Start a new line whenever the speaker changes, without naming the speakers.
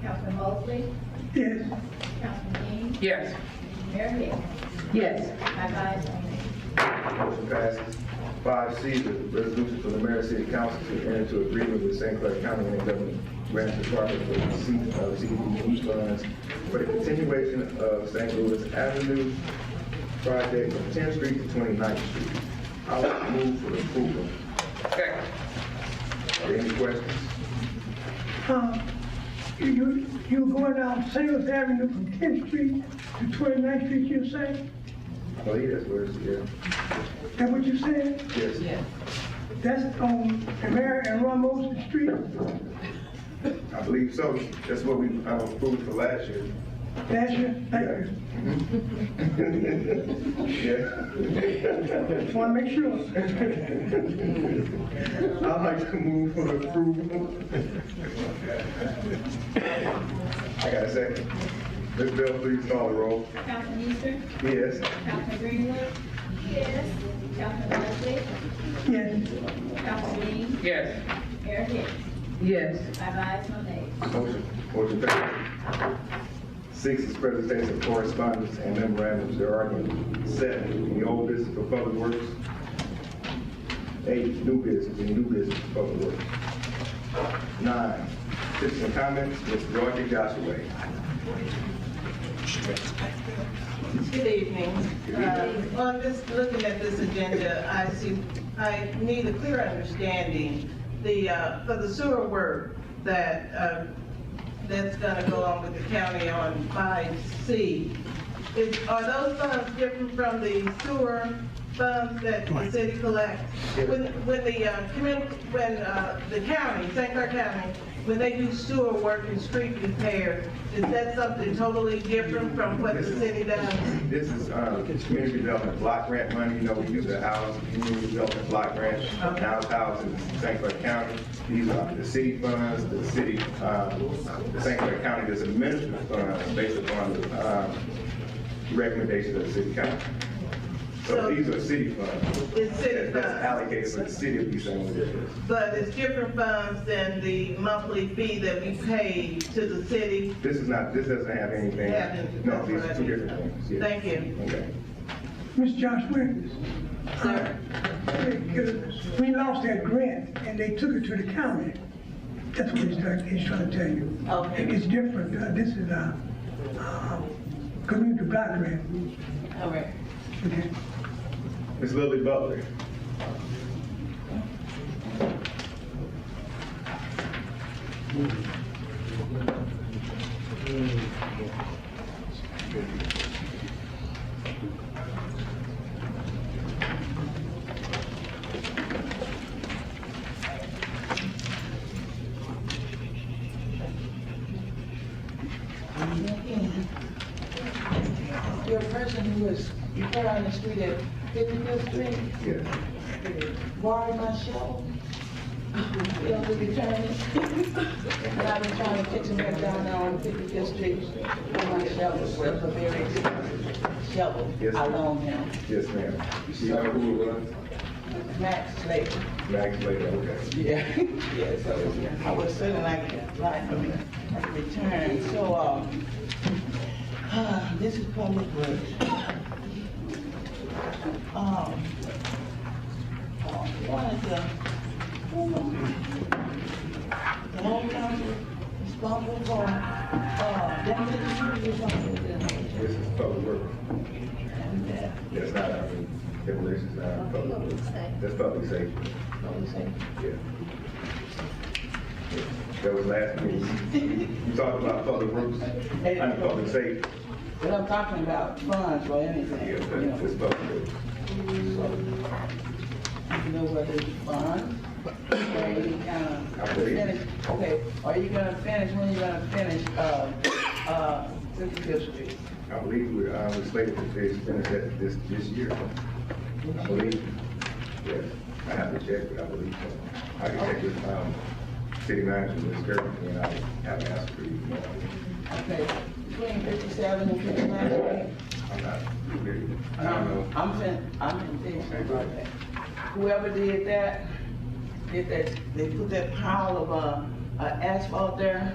Councilman Mosley,
Yes.
Councilman Dean,
Yes.
Mayor Hicks.
Yes.
Five ayes, no nays.
Motion passes. Five C, the resolution for the mayor and city council to enter into agreement with St. Clair County and Government Grant Department for the receipt of CDBG funds for the continuation of St. Louis Avenue project from 10th Street to 29th Street. I will move for approval.
Second.
Are there any questions?
Uh, You, you going down Sales Avenue from 10th Street to 29th Street, you say?
I believe that's where it's, Oh, yeah.
That what you said?
Yes,
That's on Mary and Ramos Street?
I believe so. That's what we uh, approved for last year.
That's your, thank you.
Yeah.
Just want to make sure.
I'd like to move for approval. I got a second. Ms. Bell, please call the roll.
Councilman Easter,
Yes.
Councilman Greenwood. Yes. Councilman Mosley,
Yes,
Councilman Dean,
Yes.
Mayor Hicks.
Yes.
Five ayes, no nays.
Motion, motion passes. Six is presentation of correspondence and memorandums there are none. Seven, the old business for public works. Eight, new business, and new business for public works. Nine, citizen comments, Mr. Roger Joshua.
Good evening. Uh, On this, looking at this agenda, I see, I need a clear understanding, the, uh, for the sewer work that, uh, that's gonna go on with the county on five C. Is, are those funds different from the sewer funds that the city collects? When, when the, uh, commun, when, uh, the county, St. Clair County, when they do sewer work and street repair, is that something totally different from what the city does?
This is, uh, community development block grant money, you know, we use the house, community development block grant, now it's housed in St. Clair County. These are the city funds, the city, uh, the St. Clair County does administer funds based upon, uh, recommendations of the city council. So
So-
these are city funds.
It's city
That's
funds.
allocated for the city of East St. Louis.
But it's different funds than the monthly fee that we pay to the city.
This is not, this doesn't have anything,
Yeah,
no, these are
that's
two
what I-
different things. yeah.
Thank you.
Okay.
Mr. Josh Williams.
Sir.
We lost that grant and they took it to the county. That's what he's trying, he's trying to tell you.
Okay.
It's different, Uh, this is a, uh, community block grant.
All right.
Okay.
Ms. Lily Butler.
Your person who was put on the street at 55th Street,
Yes.
borrowed my shovel, failed to return it. And I've been trying to catch him back down there on 55th Street with my shovel, which was a very expensive shovel.
Yes,
I
ma'am.
loaned him,
Yes, ma'am. You know who it was?
Max Slater.
Max Lady, okay.
Yeah. Yeah, so I would certainly like to apply for it, a return, so, um, this is public works. Um, uh, one is the, the whole council responsible for, uh, demolition, you're talking about
This is public work.
that.
That's not, I mean, demolition's not public work. That's public safety,
Public safety.
yeah. That was last meeting. You talked about public works and public safety.
But I'm talking about funds or anything,
Yeah,
you
that-
know.
that's public works.
You know where there's bonds? Or you gonna
I believe.
um, finish- Okay, are you gonna finish, when you gonna finish, uh, uh, Fifty-Fifth Street?
I believe we, I was slated to finish finish that this, this year. I believe, yes. I have to check, but I believe so. I can check with, um, city manager, Ms. Kirby, and I have asked for you.
Okay, between fifty-seven and fifty-nine Street?
I'm not, I don't know.
I'm fin, I'm impatient about that. Whoever did that, did that, they put that pile of, uh, uh, asphalt there,